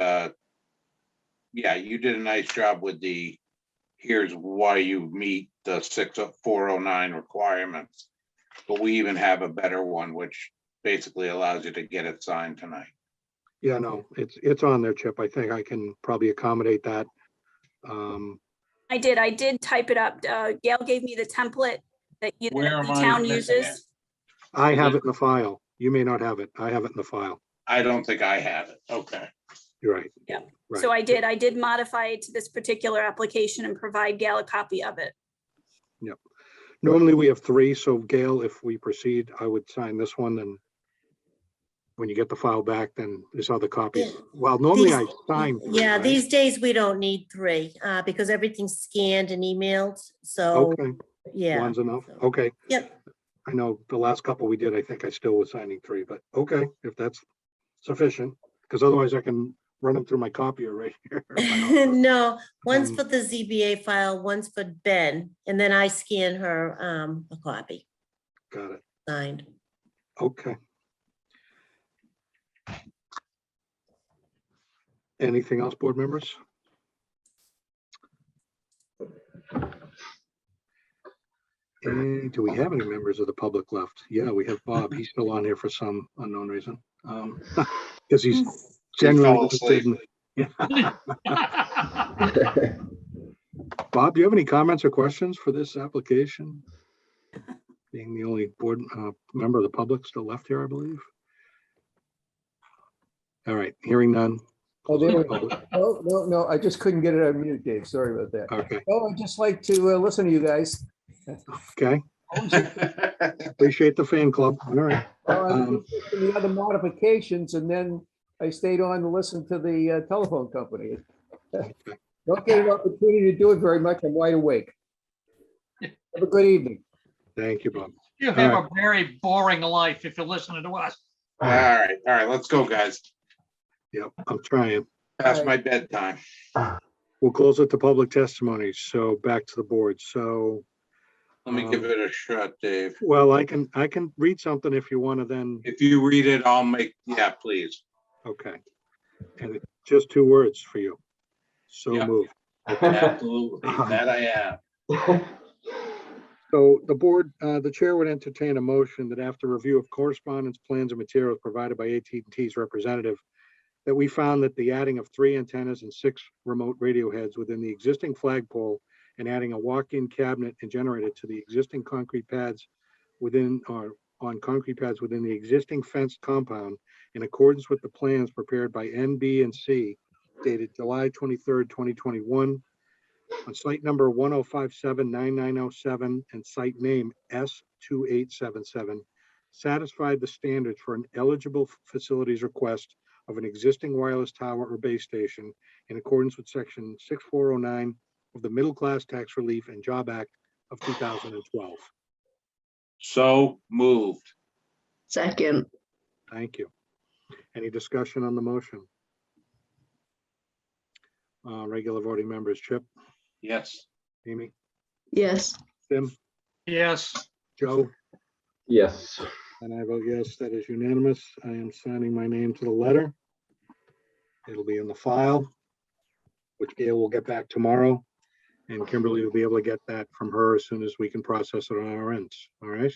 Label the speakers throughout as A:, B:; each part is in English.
A: uh, yeah, you did a nice job with the, here's why you meet the six oh, four oh nine requirements. But we even have a better one, which basically allows you to get it signed tonight.
B: Yeah, no, it's, it's on there, Chip. I think I can probably accommodate that. Um,
C: I did, I did type it up. Uh, Gail gave me the template that you,
A: Where
C: that
A: am
C: the
A: I
C: town
A: missing it?
C: uses.
B: I have it in the file. You may not have it. I have it in the file.
A: I don't think I have it. Okay.
B: You're right.
C: Yeah,
B: Right.
C: So I did, I did modify it to this particular application and provide Gail a copy of it.
B: Normally, we have three, so Gail, if we proceed, I would sign this one, and when you get the file back, then there's other copies.
D: Yeah.
B: Well, normally I
D: These-
B: sign. three,
D: Yeah,
B: right?
D: these days we don't need three, uh, because everything's scanned and emailed, so,
B: Okay,
D: yeah.
B: one's enough.
D: so-
B: Okay,
D: Yep,
B: I know the last couple we did, I think I still was signing three, but okay, if that's sufficient, because otherwise I can run them through my copier right here.
D: no, one's
B: Um,
D: for the ZBA file, one's for Ben, and then I scan her, um, a copy
B: Got it.
D: signed.
B: Okay. Anything else, board members? And Eh, do we have any members of the public left? Yeah, we have Bob. He's still on here for some unknown reason. Because he's
C: Hmm.
B: generally.
A: fell asleep.
B: interested in- Bob, do you have any comments or questions for this application? Being the only board, uh, member of the public still left here, I believe. All right, hearing none.
E: Oh, there we go.
B: Public-
E: No, no, no, I just couldn't get it on mute, Dave. Sorry about that.
B: Okay,
E: Oh, I'd just like to uh, listen to you guys.
B: okay. Appreciate the fan club. All right.
E: Oh, I
B: Um,
E: was just looking at The other modifications, and then I stayed on to listen to the uh, telephone company. Don't get an opportunity to do it very much. I'm wide awake. Have a good evening.
B: Thank you, Bob.
F: You have a very boring life if you're listening to us.
A: All right, all right, let's go, guys.
B: Yep, I'm trying.
A: Past my bedtime.
B: We'll close it to public testimony. So back to the board. So,
A: Let me give it a shot, Dave.
B: well, I can, I can read something if you want to then,
A: If you read it, I'll make, yeah, please.
B: okay. And it's just two words for you. So
A: Yeah.
B: moved.
A: Absolutely. That I am.
B: So the board, uh, the chair would entertain a motion that after review of correspondence, plans and materials provided by at and ts representative, that we found that the adding of three antennas and six remote radio heads within the existing flagpole and adding a walk-in cabinet and generator to the existing concrete pads within, or on concrete pads within the existing fenced compound in accordance with the plans prepared by NB and C dated July twenty-third, twenty twenty-one, on site number 1057-9907 and site name S two eight seven seven, satisfied the standards for an eligible f- facilities request of an existing wireless tower or base station in accordance with section six four oh nine of the Middle Class Tax Relief and Job Act of two thousand and twelve.
A: So moved.
G: Second,
B: Thank you. Any discussion on the motion? Uh, regular voting members, Chip,
A: Yes.
B: Amy,
G: yes,
B: Tim,
F: Yes,
B: Joe?
H: Yes,
B: And I vote yes, that is unanimous. I am signing my name to the letter. It'll be in the file, which Gail will get back tomorrow. And Kimberly will be able to get that from her as soon as we can process it on our ends, all right?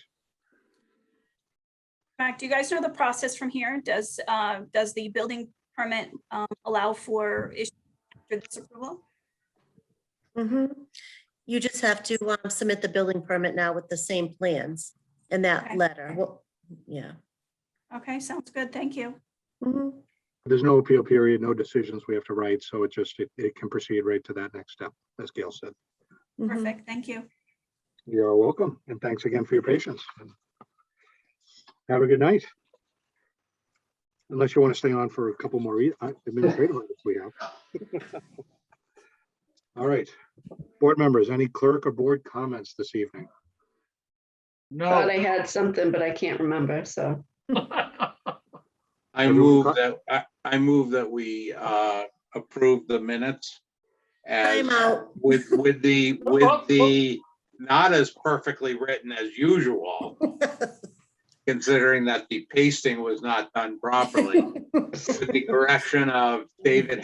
C: Mac, do you guys know the process from here? Does, uh, does the building permit, um, allow for issue after this approval?
D: Mhm. You just have to, um, submit the building permit now with the same plans and that
C: Okay.
D: letter. Well, yeah.
C: Okay, sounds good. Thank you.
D: Mhm.
B: There's no appeal period, no decisions we have to write, so it just, it- it can proceed right to that next step, as Gail said.
D: Mhm.
C: Perfect. Thank you.
B: You're welcome, and thanks again for your patience. Have a good night. Unless you want to stay on for a couple more e- uh, administrative items we have. All right, board members, any clerk or board comments this evening?
F: no.
G: thought I had something, but I can't remember, so.
A: I
B: Everyone
A: move
B: cut?
A: that, I, I move that we uh approve the minutes. as
D: Time out.
A: With, with the, with the, not as perfectly written as usual, considering that the pasting was not done properly. With the correction of David